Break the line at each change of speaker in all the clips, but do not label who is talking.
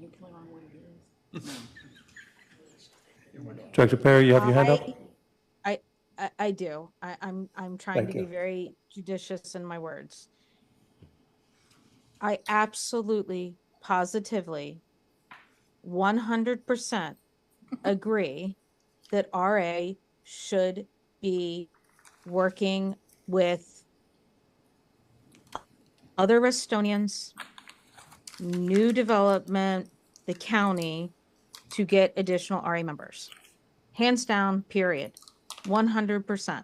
definitely wrong what it is.
Director Perry, you have your hand up?
I, I, I do. I, I'm, I'm trying
Thank
to be
you.
very judicious in my words. I absolutely, positively, one hundred percent agree that RA should be working with other Restonians, new development, the county, to get additional RA members hands down period 100%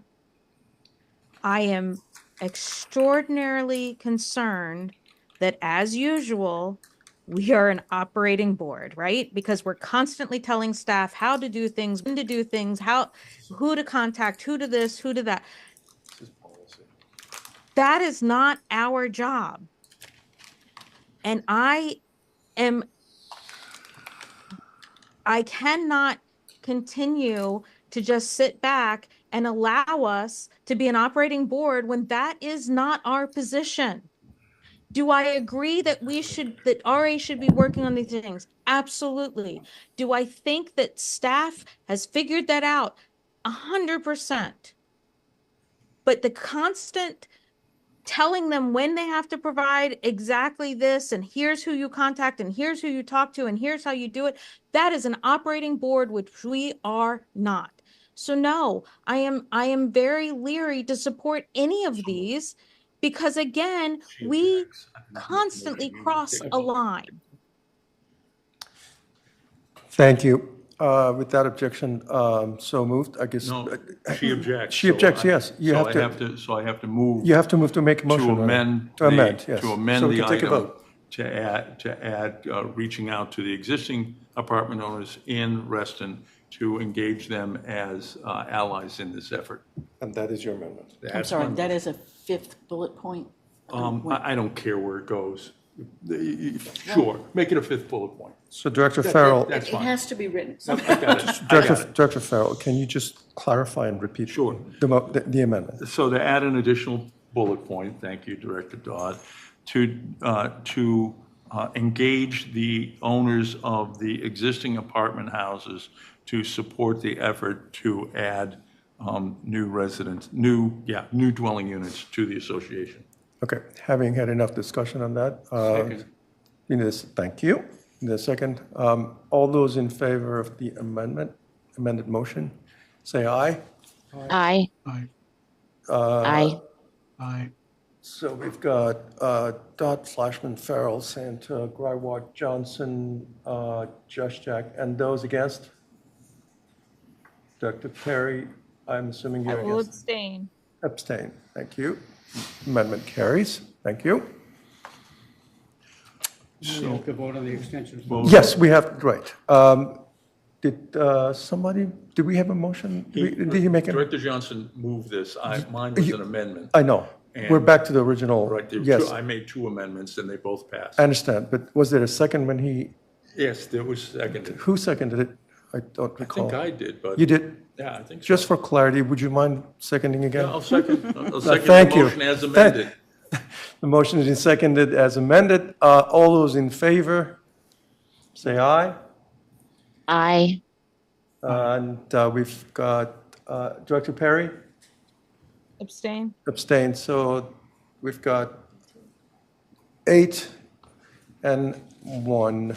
i am extraordinarily concerned that as usual we are an operating board right because we're constantly telling staff how to do things when to do things how who to contact who to this who to that that is not our job and i am i cannot continue to just sit back and allow us to be an operating board when that is not our position. Do I agree that we should, that RA should be working on these things? Absolutely. Do I think that staff has figured that out? A hundred percent. But the constant telling them when they have to provide exactly this and here's who you contact and here's who you talk to and here's how you do it that is an operating board which we are not so no i am i am very leery to support any of these because again we constantly cross a line
Thank you. Uh, With that objection, um, so moved, I guess.
No, she objects.
She
so
objects,
I-
yes. You have
So
to-
I have to, so I have to move
You have to move to make a motion.
to
on it.
amend.
To
the-
amend, yes.
To amend
So we
the
can take a
item
vote.
to add, to add, uh, reaching out to the existing apartment owners in Reston to engage them as uh, allies in this effort.
And that is your amendment.
I'm sorry, that is a fifth bullet point.
Um, I, I don't care where it goes. The- you- Sure, make it a fifth bullet point.
So Director Farrell,
That's
It
fine.
has to be written.
I got it. I got
Director
it.
Director Farrell, can you just clarify and repeat?
Sure.
The mo- the- the amendment.
So to add an additional bullet point, thank you, Director Dodd, to, uh, to uh, engage the owners of the existing apartment houses to support the effort to add um, new residents, new, yeah, new dwelling units to the association.
Okay, having had enough discussion on that. uh, In this, thank you. In the second, um, all those in favor of the amendment, amended motion, say aye. Uh,
Aye.
Aye.
Aye.
Aye.
So we've got uh, Dodd, Flashman, Farrell, Santa, Gryward, Johnson, uh, Josh Jack, and those against? Dr. Perry, I'm assuming you're
will
against.
abstain
Abstain. Thank you. Amendment carries. Thank you.
We have to vote on the extensions.
Yes, we have, right. Um, Did uh, somebody, did we have a motion? Did we- did you make it?
Director Johnson moved this. I- Mine was an amendment.
I know. We're
And-
back to the original.
Right, there were two-
Yes,
I made two amendments and they both passed.
I understand. But was there a second when he,
Yes, there was seconded.
who seconded it? I don't
I
recall.
think I did, but.
You did?
Yeah, I think so.
Just for clarity, would you mind seconding again?
I'll second, I'll second
Uh, thank
the
you.
motion as
Thank-
amended.
The motion is seconded as amended. Uh, All those in favor, say aye.
Aye.
Uh, And uh, we've got uh, Director Perry
abstain
abstained, so we've got eight and one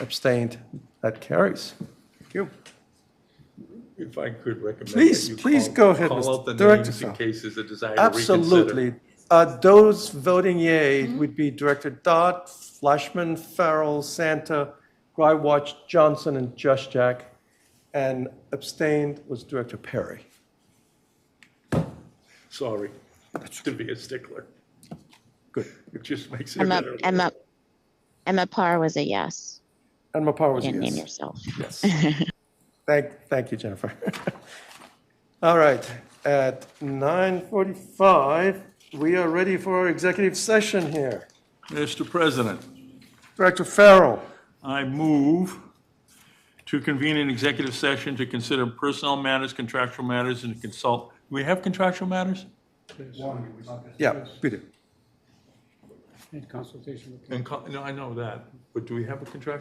abstained. That carries. Thank you.
If I could recommend. that
Please,
you
please
call-
go ahead,
Call
Mr.
out the
Director
names in
Sal.
case there's a desire to reconsider.
Absolutely. Uh, Those voting yea would be Director Dodd, Flashman, Farrell, Santa, Grywatch, Johnson, and Josh Jack. And abstained was Director Perry.
Sorry, to be a stickler.
Good.
It just makes it
Emma,
better.
Emma, Emma Parr was a yes.
And Mopar was a
Didn't name
yes.
yourself.
Yes. Thank, thank you, Jennifer. All right, at 9:45, we are ready for our executive session here.
Mr. President,
Director Farrell,
I move to convene an executive session to consider personnel matters, contractual matters, and consult. Do we have contractual matters?
yeah, we do.
In consultation with.
And, co- no, I know that, but do we have a contractual